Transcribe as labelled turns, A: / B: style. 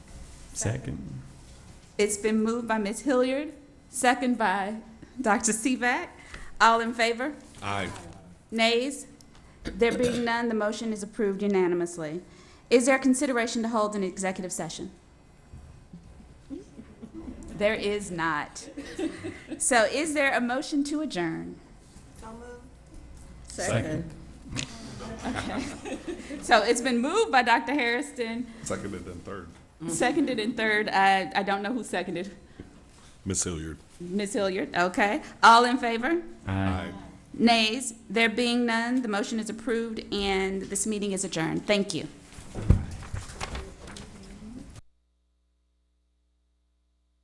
A: Second.
B: It's been moved by Ms. Hilliard, second by Dr. Seaback. All in favor?
C: Aye.
B: Nays? There being none, the motion is approved unanimously. Is there consideration to hold an executive session? There is not. So is there a motion to adjourn?
A: Second.
B: So it's been moved by Dr. Harrison,
C: Seconded and third.
B: seconded and third. I, I don't know who seconded.
C: Miss Hilliard.
B: Ms. Hilliard, okay. All in favor?
A: Aye.
B: Nays, there being none, the motion is approved and this meeting is adjourned. Thank you.